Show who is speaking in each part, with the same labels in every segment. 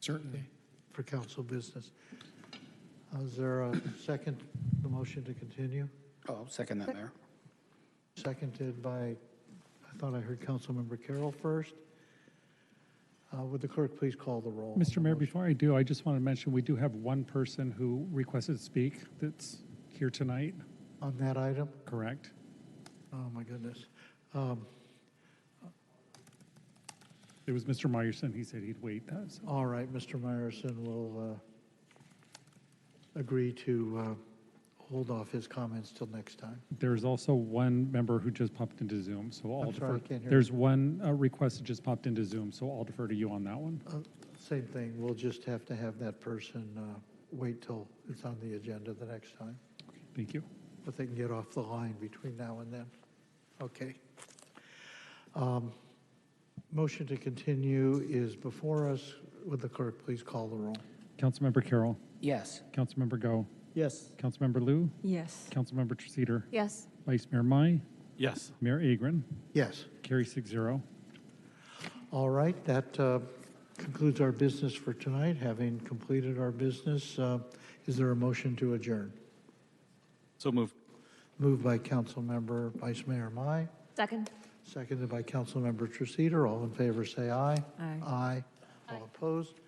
Speaker 1: Certainly.
Speaker 2: for council business. Uh, Is there a second, the motion to continue?
Speaker 3: Oh, second that, Mayor.
Speaker 2: Seconded by, I thought I heard Councilmember Carroll first. Uh, Would the clerk please call the roll?
Speaker 4: Mr. Mayor, before I do, I just want to mention, we do have one person who requested to speak that's here tonight,
Speaker 2: On that item?
Speaker 4: correct?
Speaker 2: Oh, my goodness. Um,
Speaker 4: It was Mr. Meyerson. He said he'd wait. uh, so-
Speaker 2: All right, Mr. Meyerson will uh, agree to uh, hold off his comments till next time.
Speaker 4: There's also one member who just popped into Zoom, so I'll
Speaker 2: I'm sorry, I
Speaker 4: defer.
Speaker 2: can't hear
Speaker 4: There's one uh, request that just popped into Zoom, so I'll defer to you on that one.
Speaker 2: Uh, Same thing, we'll just have to have that person uh, wait till it's on the agenda the next time,
Speaker 4: Thank you.
Speaker 2: but they can get off the line between now and then. Okay. Um, Motion to continue is before us. Would the clerk please call the roll?
Speaker 4: Councilmember Carroll,
Speaker 3: Yes.
Speaker 4: Councilmember Go,
Speaker 5: Yes.
Speaker 4: Councilmember Lou,
Speaker 6: Yes.
Speaker 4: Councilmember Treceder,
Speaker 6: Yes.
Speaker 4: Vice Mayor Mai,
Speaker 1: Yes.
Speaker 4: Mayor Agron,
Speaker 2: Yes.
Speaker 4: carry six zero.
Speaker 2: All right, that uh, concludes our business for tonight. Having completed our business, uh, is there a motion to adjourn?
Speaker 1: So moved.
Speaker 2: Moved by Councilmember Vice Mayor Mai,
Speaker 6: Second.
Speaker 2: seconded by Councilmember Treceder. All in favor, say aye.
Speaker 6: Aye.
Speaker 2: Aye. All opposed?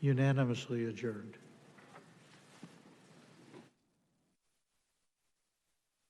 Speaker 2: Unanimously adjourned.